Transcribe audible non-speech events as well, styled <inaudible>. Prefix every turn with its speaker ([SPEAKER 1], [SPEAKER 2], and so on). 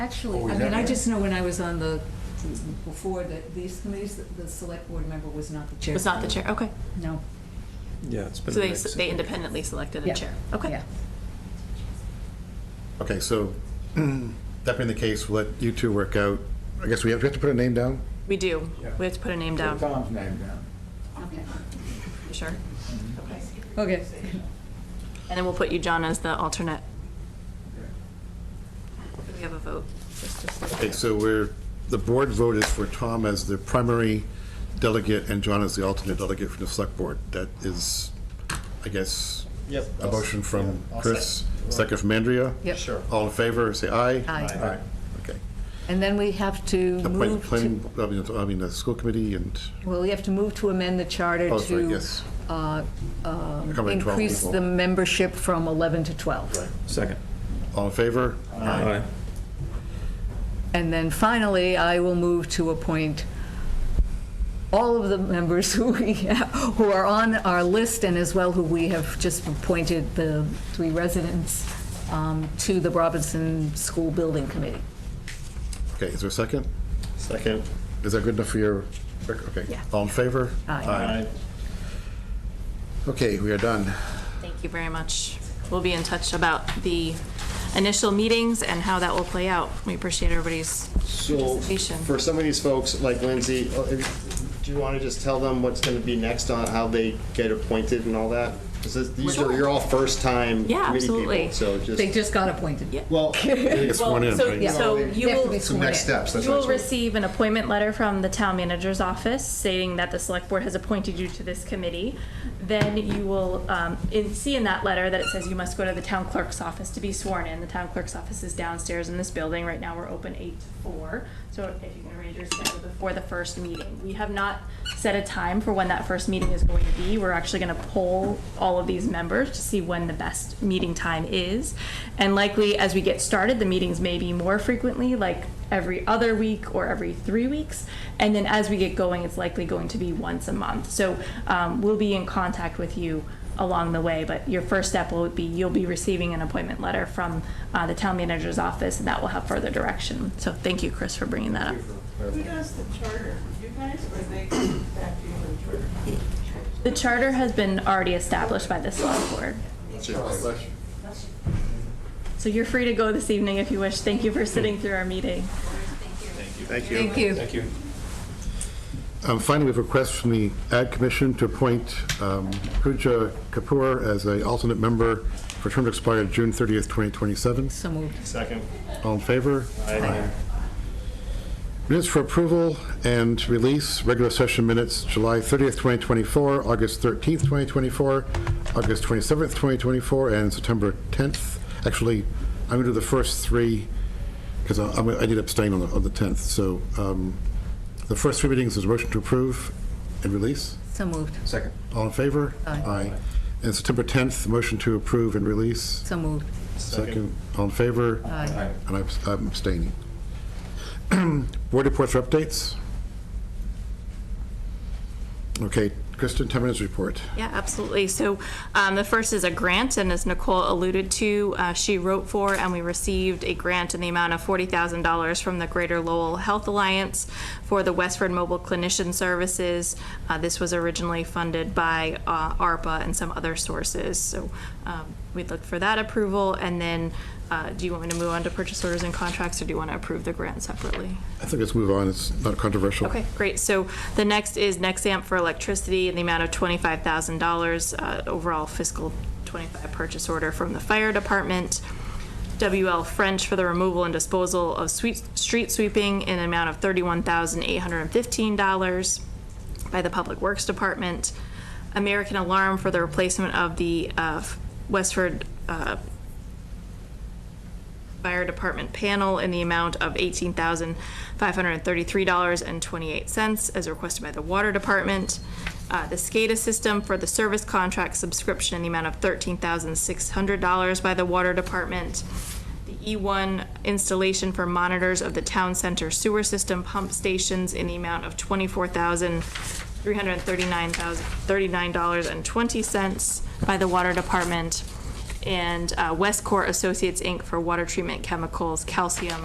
[SPEAKER 1] Actually, I
[SPEAKER 2] Always
[SPEAKER 1] mean, I
[SPEAKER 2] have.
[SPEAKER 1] just know when I was on the, before the, these committees, the- the select board member was not the chair.
[SPEAKER 3] Was not the chair, okay.
[SPEAKER 1] No.
[SPEAKER 4] Yeah, it's been
[SPEAKER 3] So
[SPEAKER 4] a
[SPEAKER 3] they,
[SPEAKER 4] mix.
[SPEAKER 3] they independently selected a
[SPEAKER 1] Yeah.
[SPEAKER 3] chair, okay.
[SPEAKER 1] Yeah.
[SPEAKER 2] Okay, so <clears throat> that being the case, we'll let you two work out. I guess we have, we have to put a name down?
[SPEAKER 3] We do,
[SPEAKER 4] Yeah.
[SPEAKER 3] we have to put a name
[SPEAKER 2] Put
[SPEAKER 3] down, for
[SPEAKER 2] Tom's name down.
[SPEAKER 1] Okay.
[SPEAKER 3] sure. Okay.
[SPEAKER 1] Okay.
[SPEAKER 3] And then we'll put you, John, as the alternate.
[SPEAKER 2] Okay.
[SPEAKER 3] Do We have a vote. Just- just like-
[SPEAKER 2] Okay, so we're, the board vote is for Tom as the primary delegate and John as the alternate delegate from the select board. That is, I guess,
[SPEAKER 5] Yep.
[SPEAKER 2] a motion from
[SPEAKER 5] Yeah, I'll
[SPEAKER 2] Chris,
[SPEAKER 5] second.
[SPEAKER 2] second from Andrea.
[SPEAKER 1] Yep.
[SPEAKER 5] Sure.
[SPEAKER 2] All in favor, say aye.
[SPEAKER 1] Aye.
[SPEAKER 2] Aye, okay.
[SPEAKER 1] And then we have to
[SPEAKER 2] Appoint
[SPEAKER 1] move to,
[SPEAKER 2] planning, I mean, I mean, the school committee and,
[SPEAKER 1] well, we have to move to amend the charter
[SPEAKER 2] oh, sorry,
[SPEAKER 1] to
[SPEAKER 2] yes.
[SPEAKER 1] uh, um,
[SPEAKER 2] Covering 12
[SPEAKER 1] increase
[SPEAKER 2] people.
[SPEAKER 1] the membership from 11 to 12.
[SPEAKER 4] Second.
[SPEAKER 2] All in favor?
[SPEAKER 4] Aye.
[SPEAKER 1] And then finally, I will move to appoint all of the members who we, who are on our list and as well who we have just appointed, the three residents, um, to the Robinson School Building Committee.
[SPEAKER 2] Okay, is there a second?
[SPEAKER 5] Second.
[SPEAKER 2] Is that good enough for your, okay.
[SPEAKER 1] Yeah.
[SPEAKER 2] All in favor?
[SPEAKER 1] Aye.
[SPEAKER 2] Okay, we are done.
[SPEAKER 3] Thank you very much. We'll be in touch about the initial meetings and how that will play out. We appreciate everybody's
[SPEAKER 5] So,
[SPEAKER 3] participation.
[SPEAKER 5] for some of these folks, like Lindsay, uh, if- do you want to just tell them what's going to be next on how they get appointed and all that? Because these are, you're all first-time
[SPEAKER 3] Yeah,
[SPEAKER 5] committee
[SPEAKER 3] absolutely.
[SPEAKER 5] people, so
[SPEAKER 1] They
[SPEAKER 5] just,
[SPEAKER 1] just got appointed.
[SPEAKER 3] Yeah.
[SPEAKER 5] well,
[SPEAKER 2] It's
[SPEAKER 3] Well,
[SPEAKER 2] sworn in,
[SPEAKER 3] so-
[SPEAKER 2] right?
[SPEAKER 1] Yeah.
[SPEAKER 3] So you
[SPEAKER 1] They have to be
[SPEAKER 3] will,
[SPEAKER 1] sworn in.
[SPEAKER 5] that's
[SPEAKER 3] you will receive an appointment letter from the town manager's office stating that the select board has appointed you to this committee. Then you will um, in- see in that letter that it says you must go to the town clerk's office to be sworn in. The town clerk's office is downstairs in this building. Right now, we're open eight to four. So if you can arrange your schedule before the first meeting. We have not set a time for when that first meeting is going to be. We're actually going to poll all of these members to see when the best meeting time is. And likely, as we get started, the meetings may be more frequently, like every other week or every three weeks. And then as we get going, it's likely going to be once a month. So um, we'll be in contact with you along the way, but your first step will be, you'll be receiving an appointment letter from uh, the town manager's office, and that will have further direction. So thank you, Chris, for bringing that up.
[SPEAKER 6] Who does the charter? You guys or they <coughs> come back to you on the charter?
[SPEAKER 3] The charter has been already established by the select board. So you're free to go this evening if you wish. Thank you for sitting through our meeting.
[SPEAKER 5] Thank you.
[SPEAKER 1] Thank you.
[SPEAKER 2] Um, Finally, we have a request from the Ad Commission to appoint um, Pooja Kapoor as a alternate member for term to expire June 30th, 2027.
[SPEAKER 1] So moved.
[SPEAKER 5] Second.
[SPEAKER 2] All in favor?
[SPEAKER 5] Aye.
[SPEAKER 2] Minutes for approval and release, regular session minutes, July 30th, 2024, August 13th, 2024, August 27th, 2024, and September 10th. Actually, I'm going to do the first three, because I I'm- I did abstain on the on the 10th. So um, the first three meetings is a motion to approve and release.
[SPEAKER 1] So moved.
[SPEAKER 4] Second.
[SPEAKER 2] All in favor?
[SPEAKER 1] Aye.
[SPEAKER 2] And September 10th, motion to approve and release.
[SPEAKER 1] So moved.
[SPEAKER 2] Second. All in favor?
[SPEAKER 1] Aye.
[SPEAKER 2] And I'm I'm abstaining. <clears throat> Board reports or updates? Okay, Kristen, 10 minutes report.
[SPEAKER 3] Yeah, absolutely. So um, the first is a grant, and as Nicole alluded to, uh, she wrote for, and we received a grant in the amount of $40,000 from the Greater Lowell Health Alliance for the Westford Mobile Clinician Services. Uh, This was originally funded by uh, ARPA and some other sources, so um, we'd look for that approval. And then, uh, do you want me to move on to purchase orders and contracts, or do you want to approve the grant separately?
[SPEAKER 2] I think let's move on, it's not controversial.
[SPEAKER 3] Okay, great. So the next is Nexamp for electricity in the amount of twenty-five thousand dollars, uh, overall fiscal twenty-five purchase order from the fire department. WL French for the removal and disposal of sweet, street sweeping in an amount of thirty-one thousand eight hundred and fifteen dollars by the Public Works Department. American Alarm for the replacement of the uh, Westford uh, Fire Department panel in the amount of $18,533.28 as requested by the Water Department. Uh, The SCADA system for the service contract subscription in the amount of $13,600 by the Water Department. The E1 installation for monitors of the town center sewer system pump stations in the amount of $24,339.20 by the Water Department and uh, Westcor Associates, Inc. for water treatment chemicals, calcium,